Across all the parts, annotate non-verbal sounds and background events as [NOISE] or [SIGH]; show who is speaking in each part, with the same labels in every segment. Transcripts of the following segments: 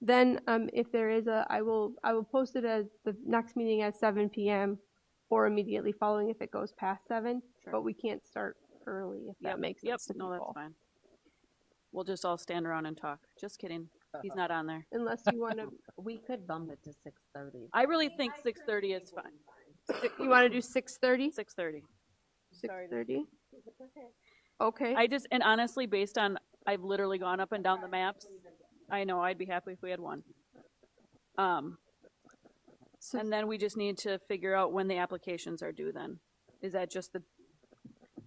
Speaker 1: Then, um, if there is a, I will, I will post it as the next meeting at seven PM or immediately following if it goes past seven,
Speaker 2: Sure.
Speaker 1: but we can't start early if that makes
Speaker 2: Yep,
Speaker 1: sense to
Speaker 2: no, that's
Speaker 1: people.
Speaker 2: fine. We'll just all stand around and talk. Just kidding.
Speaker 1: Uh-huh.
Speaker 2: He's not on there.
Speaker 1: Unless you wanna,
Speaker 2: [LAUGHS]
Speaker 3: We could bump it to six thirty.
Speaker 2: I really think six thirty is fine.
Speaker 1: you wanna do six thirty?
Speaker 2: Six thirty.
Speaker 1: Six thirty? Okay,
Speaker 2: I just, and honestly, based on, I've literally gone up and down the maps. I know, I'd be happy if we had one. Um,
Speaker 1: so
Speaker 2: and then we just need to figure out when the applications are due then. Is that just the,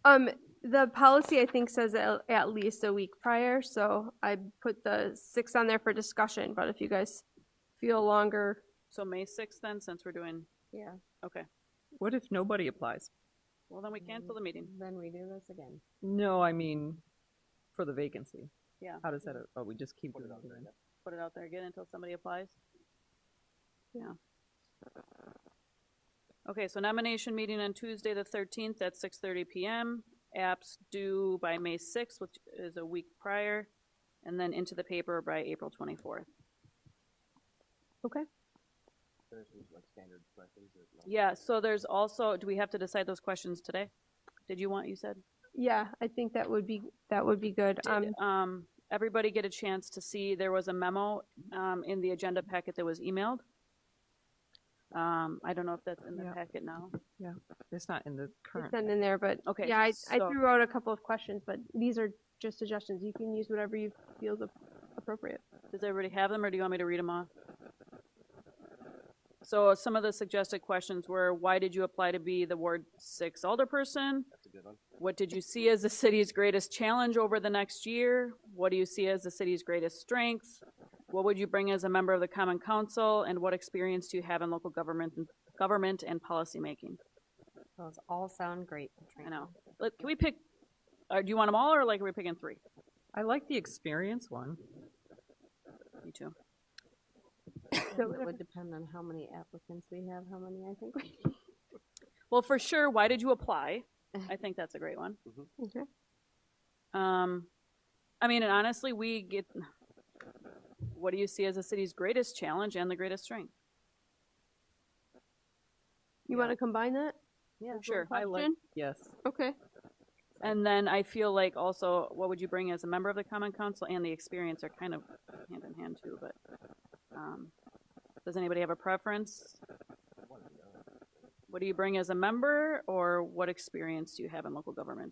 Speaker 1: Um, the policy, I think, says at, at least a week prior, so I put the six on there for discussion, but if you guys feel longer,
Speaker 2: so May sixth then, since we're doing,
Speaker 3: Yeah,
Speaker 2: okay.
Speaker 4: What if nobody applies?
Speaker 2: Well, then we cancel the meeting.
Speaker 3: then we do this again.
Speaker 4: No, I mean, for the vacancy.
Speaker 2: Yeah.
Speaker 4: How does that, oh, we just keep doing it then?
Speaker 2: Put it out there again until somebody applies. Yeah. Okay, so nomination meeting on Tuesday, the thirteenth, at six thirty PM. Apps due by May sixth, which is a week prior, and then into the paper by April twenty-fourth.
Speaker 4: Okay.
Speaker 2: Yeah, so there's also, do we have to decide those questions today? Did you want, you said?
Speaker 1: yeah, I think that would be, that would be good. Um,
Speaker 2: Did, um, everybody get a chance to see, there was a memo, um, in the agenda packet that was emailed? Um, I don't know if that's in the
Speaker 4: Yeah.
Speaker 2: packet now.
Speaker 4: It's not in the current.
Speaker 1: it's not in there, but,
Speaker 2: Okay,
Speaker 1: yeah, I, I
Speaker 2: so-
Speaker 1: threw out a couple of questions, but these are just suggestions. You can use whatever you feel is ap- appropriate.
Speaker 2: Does everybody have them, or do you want me to read them off? So some of the suggested questions were, why did you apply to be the Ward Six alderperson?
Speaker 5: That's a good one.
Speaker 2: What did you see as the city's greatest challenge over the next year? What do you see as the city's greatest strength? What would you bring as a member of the Common Council, and what experience do you have in local government, government and policymaking?
Speaker 3: Those all sound great, Katrina.
Speaker 2: I know. Let- Can we pick, or do you want them all, or like, are we picking three?
Speaker 4: I like the experience one.
Speaker 2: Me too.
Speaker 3: So It would depend on how many applicants we have, how many I think. we-
Speaker 2: Well, for sure, why did you apply? I think that's a great one.
Speaker 1: Uh-huh. Okay.
Speaker 2: Um, I mean, and honestly, we get, what do you see as the city's greatest challenge and the greatest strength?
Speaker 1: You wanna combine that?
Speaker 3: Yeah.
Speaker 2: Sure, I like,
Speaker 1: Question?
Speaker 4: Yes.
Speaker 1: Okay,
Speaker 2: and then I feel like also, what would you bring as a member of the common council and the experience are kind of hand in hand too, but, um, does anybody have a preference? What do you bring as a member, or what experience do you have in local government?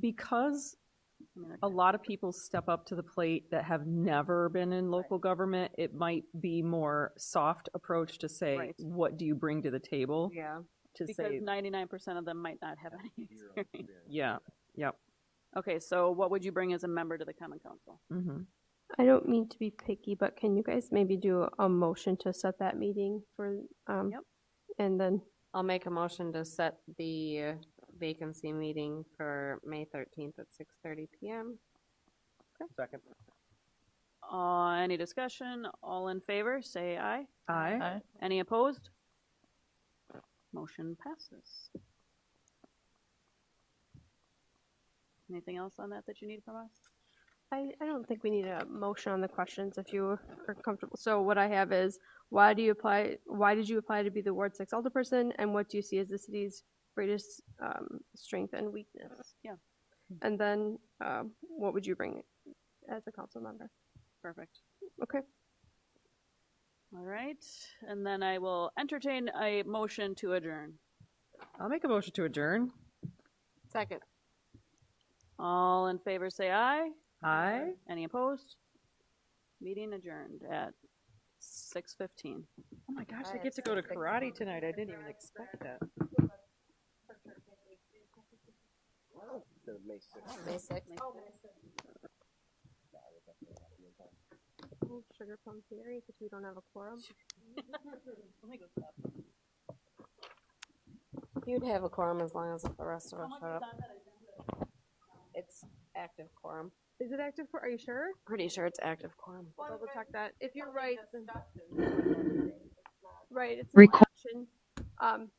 Speaker 4: Because
Speaker 2: I mean, they're
Speaker 4: a
Speaker 2: kind of-
Speaker 4: lot of people step up to the plate that have never been in local government, it might be more soft approach to say,
Speaker 2: Right.
Speaker 4: what do you bring to the table?
Speaker 3: Yeah.
Speaker 4: To
Speaker 2: Because
Speaker 4: say,
Speaker 2: ninety-nine percent of them might not have any experience.
Speaker 4: [LAUGHS] yeah, yep,
Speaker 2: Okay, so what would you bring as a member to the common council?
Speaker 4: mm-hmm.
Speaker 1: I don't mean to be picky, but can you guys maybe do a motion to set that meeting for, um,
Speaker 2: Yep.
Speaker 1: and then,
Speaker 3: I'll make a motion to set the vacancy meeting for May thirteenth at six thirty PM.
Speaker 5: Second.
Speaker 2: Uh, any discussion? All in favor, say aye.
Speaker 4: I,
Speaker 2: Any opposed? Motion passes. Anything else on that that you need from us?
Speaker 1: I, I don't think we need a motion on the questions if you are comfortable. So what I have is, why do you apply, why did you apply to be the Ward Six Alderperson? And what do you see as the city's greatest, um, strength and weakness?
Speaker 2: Yeah.
Speaker 1: And then, um, what would you bring as a council member?
Speaker 2: Perfect.
Speaker 1: Okay,
Speaker 2: All right, and then I will entertain a motion to adjourn.
Speaker 4: I'll make a motion to adjourn.
Speaker 3: Second.
Speaker 2: All in favor, say aye.
Speaker 4: I.
Speaker 2: Any opposed? Meeting adjourned at six fifteen.
Speaker 4: Oh my gosh,
Speaker 3: I
Speaker 4: I get to go to karate tonight. I didn't even expect that.
Speaker 5: Instead of May sixth.
Speaker 3: May sixth.
Speaker 1: sugar plum theory, because we don't have a quorum.
Speaker 3: You'd have a quorum as long as the rest of us showed up. It's active quorum.
Speaker 1: Is it active for, are you sure?
Speaker 3: Pretty sure it's active quorum.
Speaker 1: Double check that. If you're right, then- right, it's an
Speaker 6: Reco-
Speaker 1: action. Um,